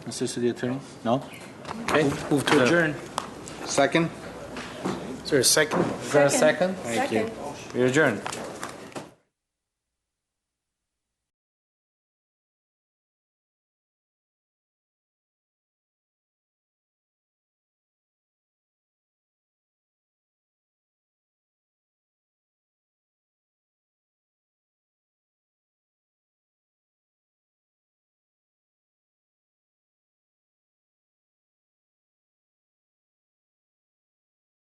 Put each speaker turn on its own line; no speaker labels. Assistant to the Attorney? No?
Okay, Uh, move to adjourn.
Second?
Is there a second? Is there a second?
Thank you.
We adjourn.